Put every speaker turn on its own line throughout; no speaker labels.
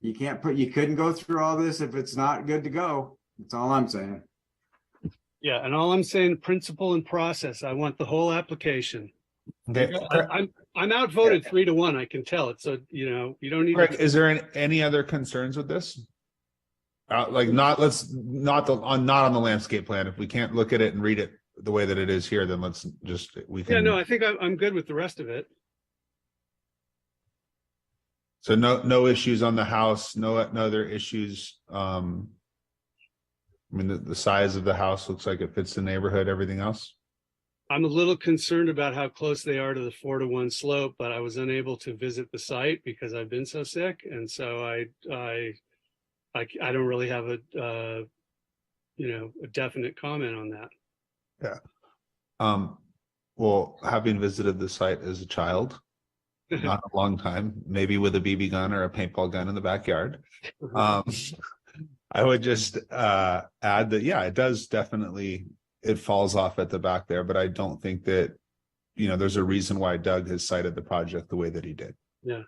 You can't put, you couldn't go through all this if it's not good to go. That's all I'm saying.
Yeah, and all I'm saying, principle and process, I want the whole application.
Okay,
I- I'm, I'm outvoted three to one, I can tell it, so, you know, you don't need.
Greg,
to
is there an- any other concerns with this? Uh, like not, let's, not the, on, not on the landscape plan. If we can't look at it and read it the way that it is here, then let's just, we
Yeah, no,
can,
I think I'm, I'm good with the rest of it.
so no, no issues on the house, no, no other issues. Um, I mean, the, the size of the house looks like it fits the neighborhood, everything else.
I'm a little concerned about how close they are to the four to one slope, but I was unable to visit the site because I've been so sick, and so I, I, I, c- I don't really have a, uh, you know, a definite comment on that.
Um, well, having visited the site as a child, not a long time, maybe with a BB gun or a paintball gun in the backyard.
Uh-huh.
Um, I would just uh, add that, yeah, it does definitely, it falls off at the back there, but I don't think that, you know, there's a reason why Doug has cited the project the way that he did.
Yeah.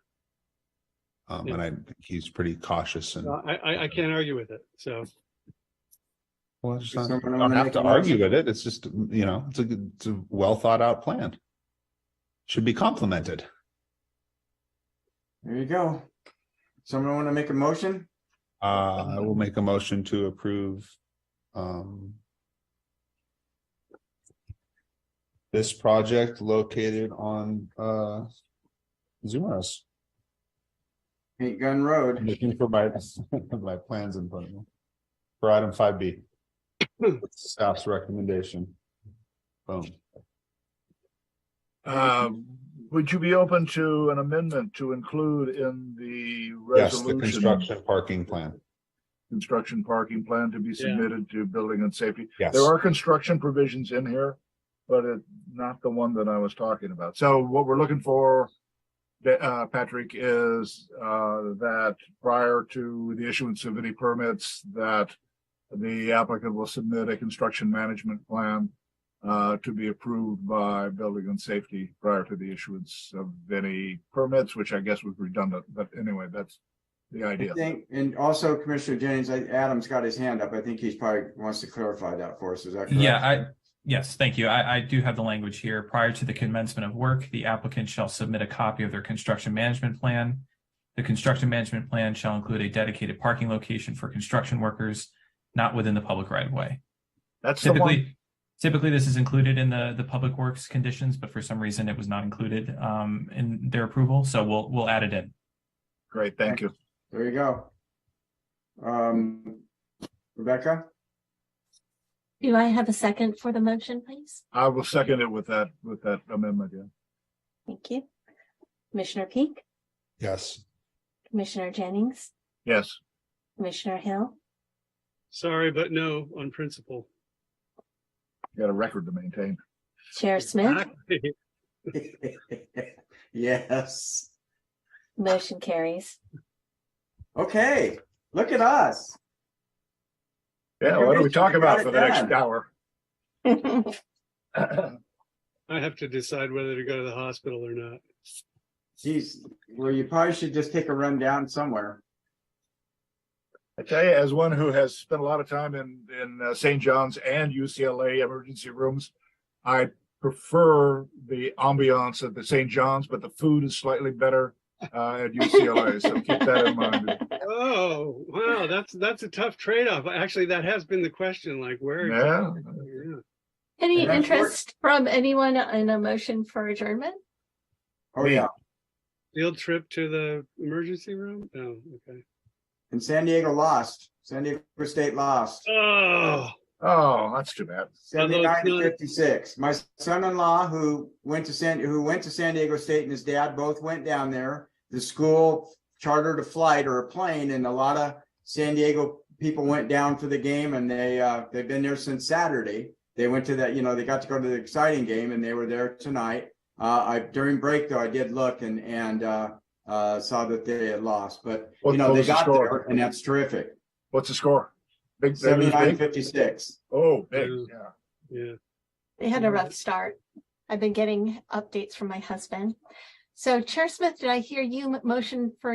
Um,
Yeah.
and I think he's pretty cautious and
I, I, I can't argue with it, so.
well, I just
Does
not,
someone
I
wanna
don't have
make
to
a motion?
argue with it. It's just, you know, it's a, good- it's a well thought out plan. Should be complimented.
There you go. Someone want to make a motion?
Uh, I will make a motion to approve, um. This project located on, uh, Zumarez.
Paint Gun
I'm
Road.
Looking for my, my plans in front of me. For item five B. Staff's recommendation. Boom.
Um, would you be open to an amendment to include in the
Yes, the
resolution?
construction parking plan.
Construction parking plan to be
Yeah.
submitted to building and safety.
Yes.
There are construction provisions in here, but it, not the one that I was talking about. So what we're looking for, that, uh, Patrick, is, uh, that prior to the issuance of any permits, that the applicant will submit a construction management plan uh, to be approved by building and safety prior to the issuance of any permits, which I guess was redundant, but anyway, that's the
I
idea.
think, and also Commissioner Jennings, I- Adam's got his hand up. I think he's probably wants to clarify that for us. Is that correct?
Yeah, I, yes, thank you. I, I do have the language here. Prior to the commencement of work, the applicant shall submit a copy of their construction management plan. The construction management plan shall include a dedicated parking location for construction workers not within the public right of way.
That's the one,
Typically, typically this is included in the, the public works conditions, but for some reason it was not included, um, in their approval. So we'll, we'll add it in.
great, thank you.
There you go. Um, Rebecca,
Do I have a second for the motion, please?
I will second it with that, with that amendment, yeah.
Thank you. Commissioner Peak,
Yes.
Commissioner Jennings,
Yes,
Commissioner Hill,
Sorry, but no, on principle.
got a record to maintain.
Chair Smith,
Yes.
motion carries.
Okay, look at us.
Yeah, what do we
Congratulations,
talk
you
about
got
for
it
the next
done.
hour?
I have to decide whether to go to the hospital or not.
Geez, well, you probably should just take a run down somewhere.
I tell you, as one who has spent a lot of time in in uh, St. John's and UCLA emergency rooms, I prefer the ambiance at the St. John's, but the food is slightly better uh, at UCLA. so keep that in mind.
Oh, wow, that's, that's a tough trade-off. Actually, that has been the question, like where?
Yeah.
Yeah.
Any
And that's where-
interest from anyone in a motion for adjournment?
Oh,
Me.
yeah.
Field trip to the emergency room? No, okay.
And San Diego lost. San Diego State lost.
Oh,
Oh, that's too bad.
Although it's
Seventy-nine to
not-
fifty-six. My son-in-law, who went to San, who went to San Diego State and his dad both went down there. The school chartered a flight or a plane and a lot of San Diego people went down for the game and they, uh, they've been there since Saturday. They went to that, you know, they got to go to the exciting game and they were there tonight. Uh, I, during break though, I did look and, and, uh, uh, saw that they had lost, but you
What-
know,
what
they
was the
got
score?
there and that's terrific.
What's the score? Big, they lose
Seventy-nine
big?
fifty-six.
Oh, big.
Yeah.
Yeah.
yeah.
They had a rough start. I've been getting updates from my husband. So Chair Smith, did I hear you m- motion for